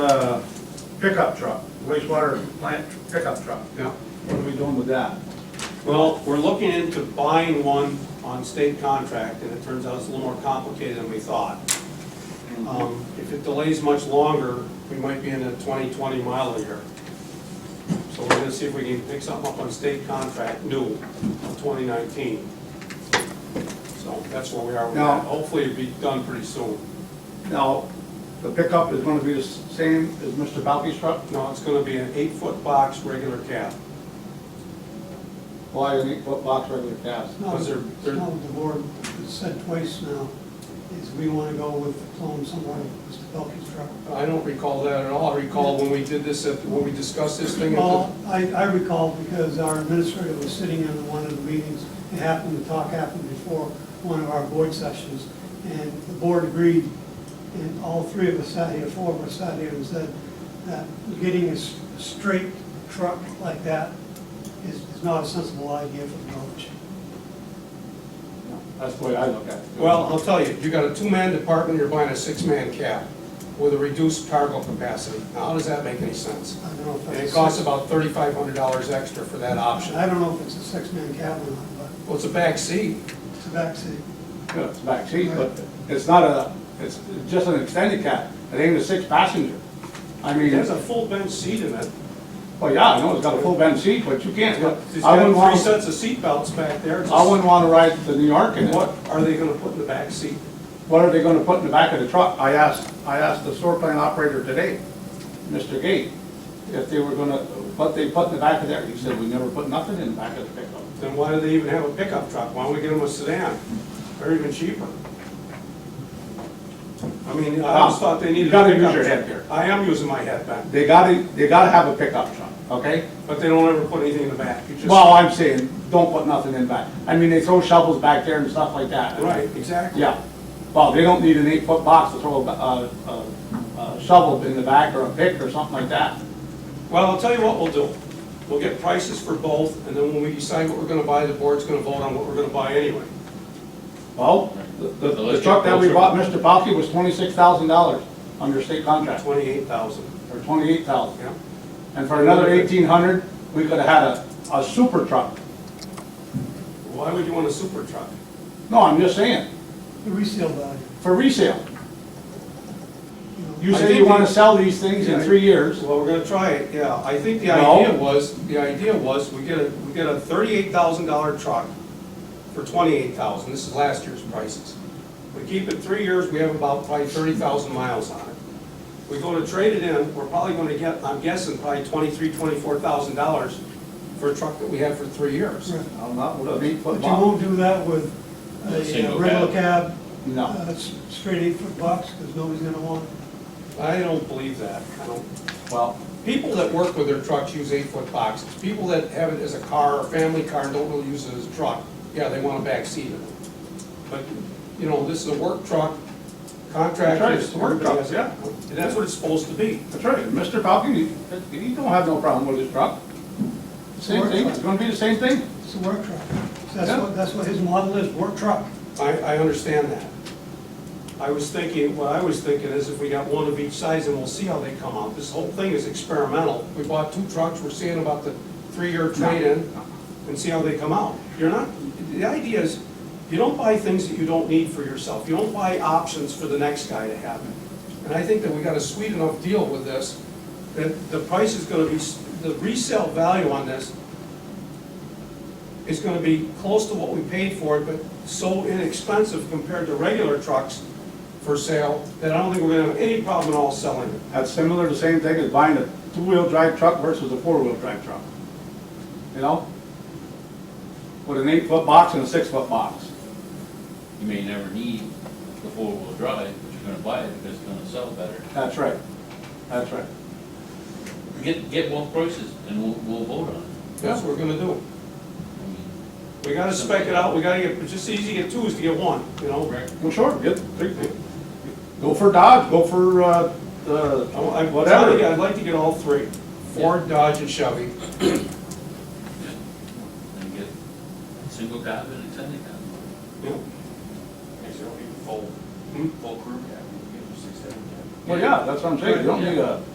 uh, pickup truck, wastewater plant pickup truck. yeah. What are we doing with that? Well, we're looking into buying one on state contract, and it turns out it's a little more complicated than we thought. Um, If it delays much longer, we might be in a 20-20 mile a year. So we're gonna see if we can pick something up on state contract, new, of 2019. So that's where we are with Now- that. Hopefully it'll be done pretty soon. Now, the pickup is gonna be the same as Mr. Balky's truck? No, it's gonna be an eight-foot box, regular cab. Why an eight-foot box regular cast? No, Was there- there- no, the board has said twice now, is we want to go with the clone somewhere, with Mr. Pelkey's truck. I don't recall that at all. I recall when we did this, at- when we discussed this thing. at the- Well, I, I recall because our administrator was sitting in one of the meetings, it happened, the talk happened before one of our board sessions, and the board agreed, and all three of us sat here, four of us sat here and said that getting a s- a straight truck like that is, is not a sensible idea for the village. That's the way I look at it. Well, I'll tell you, you got a two-man department, you're buying a six-man cab with a reduced cargo capacity. Now, how does that make any sense? I don't know if And that's. it costs about thirty-five hundred dollars extra for that option. I don't know if it's a six-man cab or not, but Well, it's a back seat. it's a backseat. Yeah, It's back seat, but it's not a, it's just an extended cab. It ain't a six-passenger. I mean, full bench seat in it. well, yeah, I know it's got a full bench seat, but you can't, I wouldn't got three want, sets of seat belts back there. I wouldn't want to ride to New York in it. What are they gonna put in the back seat? What are they gonna put in the back of the truck? I asked, I asked the sewer plant operator today, Mr. Gate, if they were gonna, what they put in the back of there. He said, we never put nothing in the back of the pickup. Then why do they even have a pickup truck? Why don't we get them a sedan? They're even cheaper. I mean, I always thought they needed. You gotta a use pickup your truck. head there. I am using my head back, They gotta, they gotta have a pickup truck, okay? but they don't ever put anything in the back. You just- Well, I'm saying, don't put nothing in back. I mean, they throw shovels back there and stuff like that. Right, exactly. Yeah. Well, they don't need an eight-foot box to throw a, a, a shovel in the back or a pick or something like that. Well, I'll tell you what we'll do. We'll get prices for both, and then when we decide what we're gonna buy, the board's gonna vote on what we're gonna buy anyway. Well, the, So the let's truck get that we closer. bought, Mr. Balky, was twenty-six thousand dollars under state contract. Twenty-eight thousand, for twenty-eight thousand. yeah. And for another eighteen hundred, we could've had a, a super truck. Why would you want a super truck? No, I'm just saying, The resale value, for resale. you know. You I say think you wanna we- sell these things in three years. Well, we're gonna try it, yeah. I think the No. idea was, the idea was, we get a, we get a thirty-eight thousand dollar truck for twenty-eight thousand, this is last year's prices. We keep it three years, we have about probably thirty thousand miles on it. We go to trade it in, we're probably gonna get, I'm guessing, probably twenty-three, twenty-four thousand dollars for a truck that we had for three years. Right. I'm not with an But eight-foot you box. won't do that with A a uh, single regular cab, No. uh, s- straight eight-foot box, because nobody's gonna want it. I don't believe that. I don't, Well, people that work with their trucks use eight-foot boxes. People that have it as a car or family car and don't really use it as a truck, yeah, they want a back seat in it. But, you know, this is a work truck, That's right, contractors, it's a work everybody has, truck. yeah. And that's what it's supposed to be. that's right, Mr. Falcon, he, he don't have no problem with his truck. Same thing, it's gonna be the same thing. It's a work truck. So That's Yeah. what, that's what his model is, work truck. I, I understand that. I was thinking, what I was thinking is if we got one of each size and we'll see how they come out. This whole thing is experimental. We bought two trucks, we're seeing about the three-year trade-in and see how they come out. You're not, the idea is, you don't buy things that you don't need for yourself. You don't buy options for the next guy to have. And I think that we got a sweet enough deal with this, that the price is gonna be, s- the resale value on this is gonna be close to what we paid for it, but so inexpensive compared to regular trucks for sale, that I don't think we're gonna have any problem at all selling it. That's similar to the same thing as buying a two-wheel drive truck versus a four-wheel drive truck. You know? With an eight-foot box and a six-foot box. You may never need the four-wheel drive, but you're gonna buy it because it's gonna sell better. That's right, that's right. Get, get both prices and we'll, we'll vote on it. That's what we're gonna do. I mean, We gotta spec it out, we gotta get, it's just easy to get two is to get one, you know? Well, sure, get, go for Dodge, go for, uh, the, I want- uh, I'm Whatever. trying to get- I'd like to get all three, Ford, Dodge, and Chevy. just- And get single cab and extended cab. Yeah. Actually, don't need full, Hmm? full crew cab, you can get your six, seven cab. well, yeah, that's what I'm saying, you don't need a.